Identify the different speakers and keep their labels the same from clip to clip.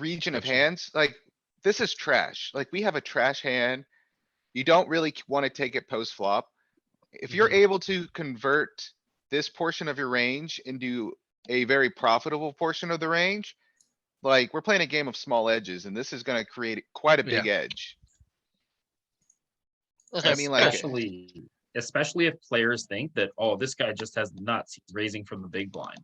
Speaker 1: region of
Speaker 2: Gotcha.
Speaker 1: hands, like, this is trash. Like, we have a trash hand. You don't really wanna take it post flop. If you're
Speaker 2: Mhm.
Speaker 1: able to convert this portion of your range into a very profitable portion of the range, like, we're playing a game of small edges and this is gonna create quite a
Speaker 2: Yeah.
Speaker 1: big edge.
Speaker 3: Look,
Speaker 1: I mean, like-
Speaker 3: Especially, especially if players think that, oh, this guy just has nuts, he's raising from the big blind.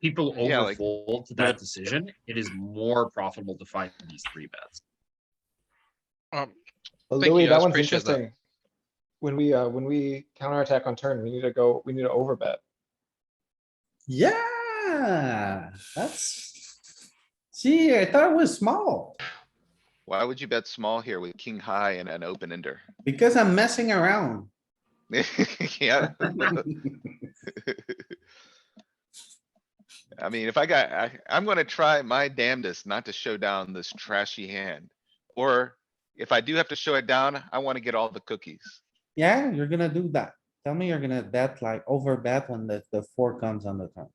Speaker 3: People
Speaker 1: Yeah, like-
Speaker 3: overfold to that decision, it is more profitable to find these three bets.
Speaker 2: Um,
Speaker 4: But
Speaker 2: Thank
Speaker 4: Louis,
Speaker 2: you,
Speaker 4: that
Speaker 2: guys.
Speaker 4: one's
Speaker 2: Appreciate that.
Speaker 4: interesting. When we, uh, when we counterattack on turn, we need to go, we need to overbet.
Speaker 5: Yeah, that's. See, I thought it was small
Speaker 1: Why would you bet small here with king high and an open ender?
Speaker 5: because I'm messing around.
Speaker 1: Yeah. I mean, if I got, I, I'm gonna try my damnedest not to show down this trashy hand. Or if I do have to show it down, I wanna get all the cookies.
Speaker 5: Yeah, you're gonna do that. Tell me you're gonna bet like over bet when the, the four comes on the turn.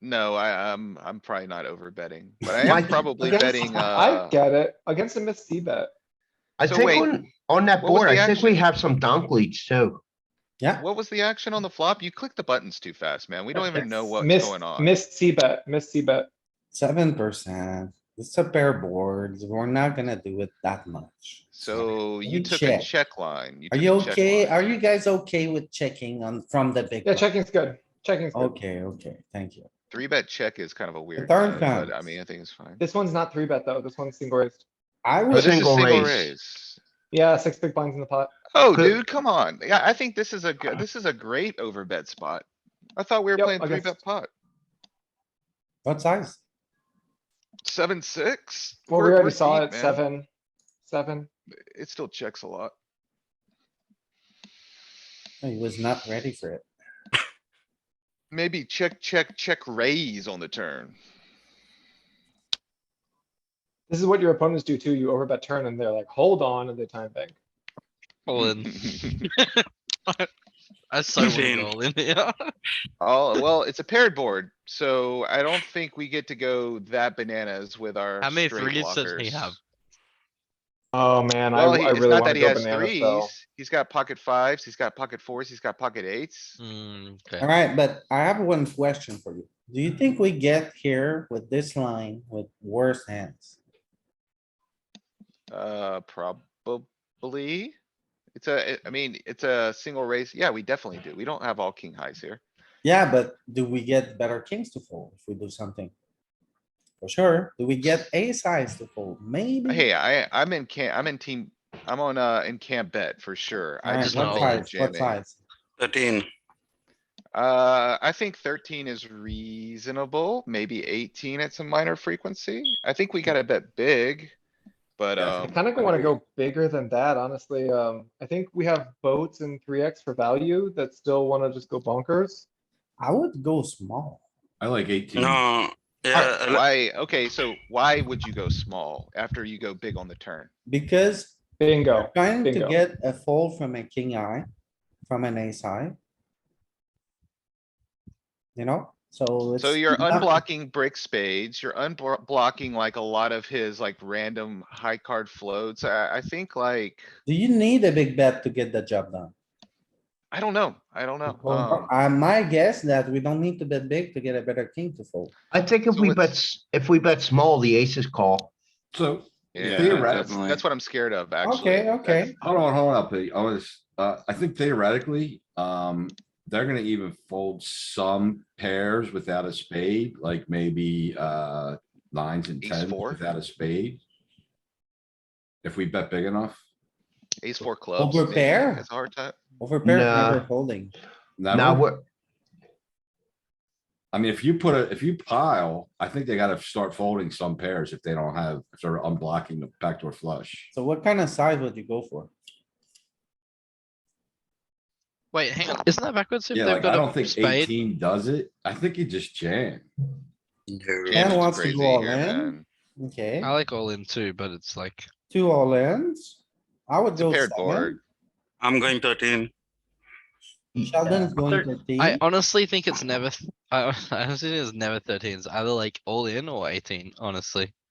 Speaker 1: No, I, I'm, I'm probably not over betting, but I am
Speaker 6: Mike,
Speaker 1: probably
Speaker 6: against-
Speaker 1: betting,
Speaker 4: I
Speaker 1: uh,
Speaker 4: get it, against a missed C bet.
Speaker 6: I
Speaker 1: So
Speaker 6: think
Speaker 1: wait,
Speaker 6: on, on that
Speaker 1: what was
Speaker 6: board,
Speaker 1: the
Speaker 6: I think we
Speaker 1: action?
Speaker 6: have some donk leads too.
Speaker 5: Yeah,
Speaker 1: what was the action on the flop? You clicked the buttons too fast, man. We don't even know what's
Speaker 4: Missed,
Speaker 1: going on.
Speaker 4: missed C bet, missed C bet.
Speaker 5: seven percent. It's a pair boards. We're not gonna do it that much.
Speaker 1: So
Speaker 5: Let
Speaker 1: you
Speaker 5: me
Speaker 1: took a
Speaker 5: check.
Speaker 1: check line.
Speaker 5: Are
Speaker 1: took a
Speaker 5: you
Speaker 1: check
Speaker 5: okay?
Speaker 1: line.
Speaker 5: Are you guys okay with checking on from the big?
Speaker 4: Yeah,
Speaker 5: blind?
Speaker 4: checking's good, checking's good.
Speaker 5: Okay, okay, thank you.
Speaker 1: Three bet check is kind of a weird,
Speaker 5: third
Speaker 1: one, but I
Speaker 5: comes.
Speaker 1: mean, I think it's fine.
Speaker 4: This one's not three bet though, this one's single raised.
Speaker 5: I
Speaker 1: Oh, this
Speaker 5: was,
Speaker 1: is
Speaker 6: Single
Speaker 1: single
Speaker 6: raise.
Speaker 1: raise.
Speaker 4: Yeah, six big blinds in the pot.
Speaker 1: Oh,
Speaker 6: Could-
Speaker 1: dude, come on. Yeah, I think this is a, good- this is a great overbet spot. I thought we were
Speaker 4: Uh. Yep,
Speaker 1: playing three bet
Speaker 4: against-
Speaker 1: pot.
Speaker 5: what size?
Speaker 1: Seven, six?
Speaker 4: Well, we
Speaker 1: We're-
Speaker 4: already
Speaker 1: we're
Speaker 4: saw
Speaker 1: deep,
Speaker 4: it,
Speaker 1: man.
Speaker 4: seven, seven.
Speaker 1: It still checks a lot.
Speaker 5: He was not ready for it.
Speaker 1: Maybe check, check, check raise on the turn.
Speaker 4: This is what your opponents do too, you overbet turn and they're like, hold on, and they time bank.
Speaker 2: all in. I so want to
Speaker 7: Shane.
Speaker 2: go all in. Yeah.
Speaker 1: Oh, well, it's a paired board, so I don't think we get to go that bananas with our
Speaker 2: How many
Speaker 1: straight
Speaker 2: threes does he have?
Speaker 1: blockers.
Speaker 4: Oh, man, I,
Speaker 1: Well, he-
Speaker 4: I
Speaker 1: it's
Speaker 4: really
Speaker 1: not that
Speaker 4: wanna
Speaker 1: he
Speaker 4: go
Speaker 1: has
Speaker 4: bananas though.
Speaker 1: threes. He's got pocket fives, he's got pocket fours, he's got pocket eights.
Speaker 2: Mm, okay.
Speaker 5: Alright, but I have one question for you. Do you think we get here with this line with worse hands?
Speaker 1: Uh, probably. It's a,
Speaker 5: Mm.
Speaker 1: I- I mean, it's a single raise. Yeah, we definitely do. We don't have all king highs here.
Speaker 5: Yeah, but do we get better kings to fold if we do something? For sure. Do we get ace size to fold? Maybe.
Speaker 1: Uh, Hey, I, I'm in camp, I'm in team, I'm on, uh, in camp bet for sure. I
Speaker 5: Alright,
Speaker 1: just
Speaker 5: what
Speaker 1: don't
Speaker 2: know
Speaker 1: think we're
Speaker 5: size, what
Speaker 1: jamming.
Speaker 5: size?
Speaker 7: Thirteen.
Speaker 1: Uh, I think thirteen is reasonable, maybe eighteen at some minor frequency. I think we gotta bet big. But,
Speaker 5: Hmm. Yeah,
Speaker 4: I
Speaker 1: um,
Speaker 4: kinda wanna go bigger than that, honestly. Um, I think we have boats and three X for value that still wanna just go bonkers.
Speaker 5: I would go small.
Speaker 8: I like eighteen.
Speaker 7: No, yeah, I li-
Speaker 1: why, okay, so why would you go small after you go big on the turn?
Speaker 5: Because
Speaker 4: Bingo.
Speaker 5: trying to
Speaker 4: Bingo.
Speaker 5: get a fold from a king eye, from an ace high. You know, so.
Speaker 1: So
Speaker 5: it's
Speaker 1: you're
Speaker 5: not-
Speaker 1: unblocking brick spades, you're unblocking like a lot of his like random high card floats. I, I think like,
Speaker 5: Do you need a big bet to get the job done?
Speaker 1: I don't know, I don't know.
Speaker 5: Well,
Speaker 1: um,
Speaker 5: I might guess that we don't need to bet big to get a better king to fold.
Speaker 6: I think if
Speaker 1: So
Speaker 6: we
Speaker 1: it's-
Speaker 6: bet, s- if we bet small, the aces call.
Speaker 8: So,
Speaker 1: yeah,
Speaker 8: theoretic-
Speaker 1: that's- That's what I'm scared of, actually.
Speaker 5: Okay,
Speaker 1: That's-
Speaker 5: okay.
Speaker 8: hold on, hold on, Pete. I was, uh, I think theoretically, um, they're gonna even fold some pairs without a spade, like maybe, uh, nines and
Speaker 1: Ace
Speaker 8: tens
Speaker 1: four?
Speaker 8: without a spade. If we bet big enough,
Speaker 1: Ace four clubs.
Speaker 5: we're
Speaker 1: maybe,
Speaker 5: bare.
Speaker 1: It's a hard time.
Speaker 5: Over pair,
Speaker 6: Nah.
Speaker 5: never folding.
Speaker 6: Now
Speaker 8: never,
Speaker 6: we're,
Speaker 8: I mean, if you put a, if you pile, I think they gotta start folding some pairs if they don't have, if they're unblocking the backdoor flush.
Speaker 5: So what kind of size would you go for?
Speaker 2: Wait, hang on. Isn't that backwards? If
Speaker 8: Yeah,
Speaker 2: they've
Speaker 8: like,
Speaker 2: got
Speaker 8: I
Speaker 2: a
Speaker 8: don't think
Speaker 2: spade?
Speaker 8: eighteen does it. I think you just jam.
Speaker 7: no.
Speaker 1: Jamming's
Speaker 5: wants to
Speaker 1: crazy
Speaker 5: go all
Speaker 1: here,
Speaker 5: in.
Speaker 1: man.
Speaker 5: Okay,
Speaker 1: Uh,
Speaker 2: I like all in too, but it's like
Speaker 5: two all ins. I would
Speaker 1: It's a
Speaker 5: go
Speaker 1: paired
Speaker 5: seven.
Speaker 1: board.
Speaker 7: I'm going thirteen.
Speaker 5: Sheldon's going to think.
Speaker 2: I honestly think it's never. th- I I honestly think it's never 13s. Either like all in or 18. Honestly.